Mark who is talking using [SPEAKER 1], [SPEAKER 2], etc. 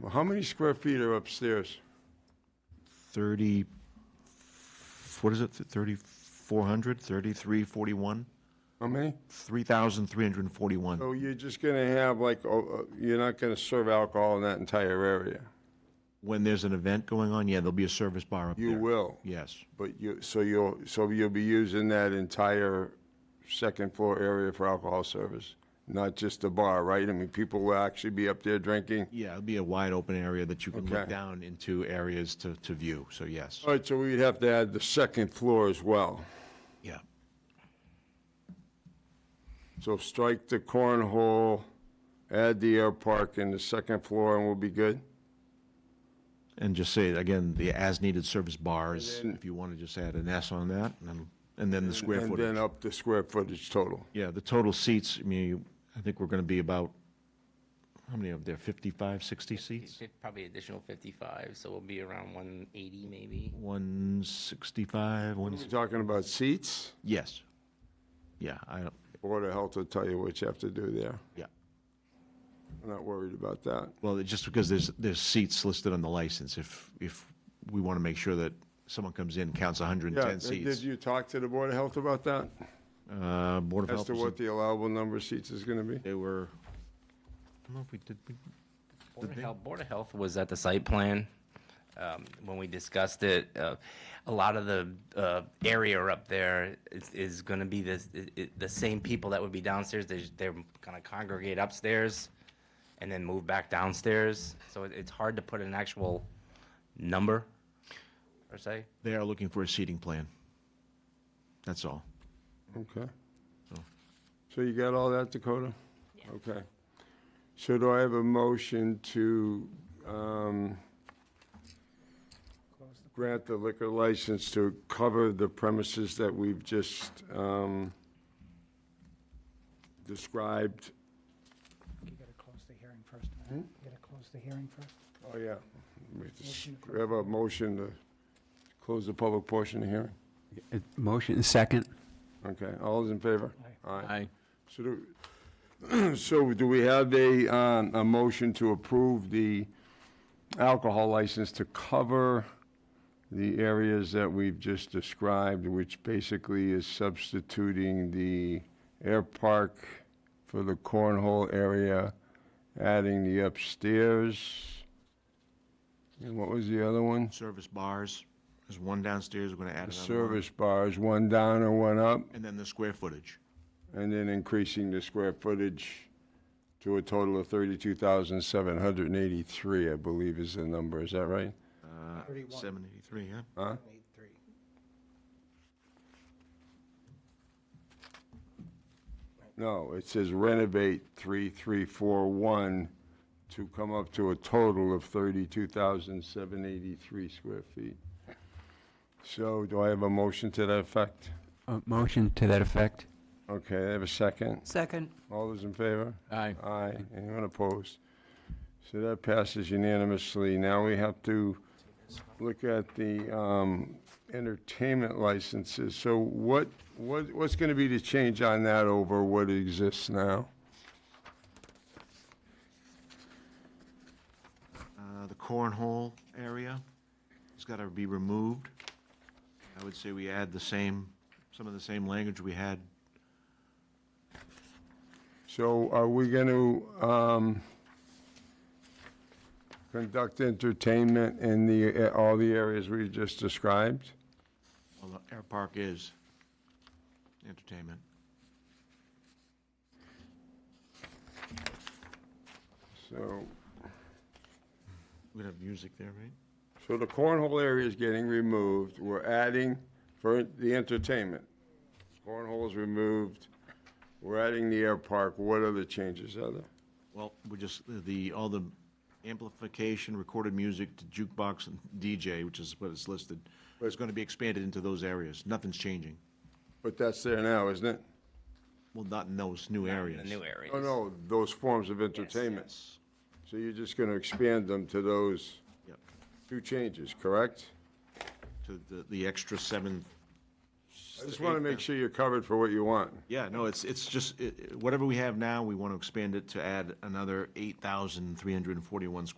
[SPEAKER 1] Well, how many square feet are upstairs?
[SPEAKER 2] 30, what is it, 3,400, 3,341?
[SPEAKER 1] How many?
[SPEAKER 2] 3,341.
[SPEAKER 1] So you're just gonna have like, oh, uh, you're not gonna serve alcohol in that entire area?
[SPEAKER 2] When there's an event going on, yeah, there'll be a service bar up there.
[SPEAKER 1] You will,
[SPEAKER 2] Yes,
[SPEAKER 1] but you, so you'll, so you'll be using that entire second floor area for alcohol service? Not just the bar, right? I mean, people will actually be up there drinking?
[SPEAKER 2] yeah, it'll be a wide open area that you can look
[SPEAKER 1] Okay.
[SPEAKER 2] down into areas to, to view, so yes,
[SPEAKER 1] All right, so we'd have to add the second floor as well.
[SPEAKER 2] yeah.
[SPEAKER 1] So strike the cornhole, add the air park in the second floor, and we'll be good?
[SPEAKER 2] And just say, again, the as-needed service bars,
[SPEAKER 1] And then-
[SPEAKER 2] if you want to just add an S on that, and then, and then the square
[SPEAKER 1] And
[SPEAKER 2] footage.
[SPEAKER 1] then up the square footage total.
[SPEAKER 2] Yeah, the total seats, I mean, you- I think we're going to be about, how many of there, 55, 60 seats?
[SPEAKER 3] Fif- Probably additional 55, so we'll be around 180 maybe.
[SPEAKER 2] 165, one,
[SPEAKER 1] We're talking about seats?
[SPEAKER 2] yes. Yeah, I, don't.
[SPEAKER 1] Board of Health will tell you what you have to do there.
[SPEAKER 2] yeah.
[SPEAKER 1] I'm not worried about that.
[SPEAKER 2] Well, it's just because there's, there's seats listed on the license, if, if we want to make sure that someone comes in, counts
[SPEAKER 1] Yeah,
[SPEAKER 2] 110
[SPEAKER 1] did
[SPEAKER 2] seats.
[SPEAKER 1] you talk to the Board of Health about that?
[SPEAKER 2] Uh, Board of
[SPEAKER 1] As
[SPEAKER 2] Health,
[SPEAKER 1] to
[SPEAKER 2] was-
[SPEAKER 1] what the allowable number of seats is going to be?
[SPEAKER 2] they were, I don't know if we did, we-
[SPEAKER 3] Board of Health, Board of Health was at the site plan. um, When we discussed it, Uh, a lot of the uh, area up there is, is going to be this, i- i- the same people that would be downstairs. They're, they're going to congregate upstairs and then move back downstairs. So it- it's hard to put an actual number, per se.
[SPEAKER 2] they are looking for a seating plan. That's all.
[SPEAKER 1] Okay.
[SPEAKER 2] Oh.
[SPEAKER 1] So you got all that, Dakota? Okay. So do I have a motion to um, grant the liquor license to cover the premises that we've just um, described?
[SPEAKER 4] You gotta close the hearing first. Matt. You gotta close the hearing first.
[SPEAKER 1] Oh, yeah. We just- we have a motion to close the public portion of the hearing?
[SPEAKER 5] Uh, Motion, second.
[SPEAKER 1] Okay, all those in favor? Aye. So do, so do we have a, um, a motion to approve the alcohol license to cover the areas that we've just described, which basically is substituting the air park for the cornhole area, adding the upstairs? And what was the other one?
[SPEAKER 2] Service bars, there's one downstairs, we're going to add
[SPEAKER 1] The
[SPEAKER 2] another one.
[SPEAKER 1] service bars, one down and one up?
[SPEAKER 2] And then the square footage.
[SPEAKER 1] And then increasing the square footage to a total of 32,783, I believe is the number, is that right?
[SPEAKER 2] Uh,
[SPEAKER 4] 31.
[SPEAKER 2] 783, yeah.
[SPEAKER 1] Huh?
[SPEAKER 4] Eight, three.
[SPEAKER 1] No, it says renovate 3341 to come up to a total of 32,783 square feet. So do I have a motion to that effect?
[SPEAKER 5] Uh, Motion to that effect.
[SPEAKER 1] Okay, I have a second.
[SPEAKER 6] Second.
[SPEAKER 1] All those in favor?
[SPEAKER 5] Aye.
[SPEAKER 1] Aye. Anyone opposed? So that passes unanimously. Now we have to look at the um, entertainment licenses. So what, what, what's going to be the change on that over what exists now?
[SPEAKER 2] Uh, The cornhole area has got to be removed. I would say we add the same, some of the same language we had.
[SPEAKER 1] So are we going to conduct entertainment in the, all the areas we just described?
[SPEAKER 2] Well, the air park is entertainment.
[SPEAKER 1] So,
[SPEAKER 2] We'd have music there, right?
[SPEAKER 1] so the cornhole area is getting removed. We're adding for the entertainment. Cornhole is removed. We're adding the air park. What other changes are there?
[SPEAKER 2] Well, we just, the, all the amplification, recorded music, to jukebox, and DJ, which is what is listed, is going to be expanded into those areas. Nothing's changing.
[SPEAKER 1] But that's there now, isn't it?
[SPEAKER 2] Well, not in those new
[SPEAKER 3] in
[SPEAKER 2] areas.
[SPEAKER 3] The new areas.
[SPEAKER 1] Oh, no, those forms of entertainment.
[SPEAKER 2] Yes.
[SPEAKER 1] So you're just going to expand them to those
[SPEAKER 2] Yep.
[SPEAKER 1] two changes, correct?
[SPEAKER 2] to the, the extra seven.
[SPEAKER 1] I just want to make sure you're covered for what you want.
[SPEAKER 2] Yeah, no, it's, it's just, it- it- whatever we have now, we want to expand it to add another eight thousand three hundred and forty-one square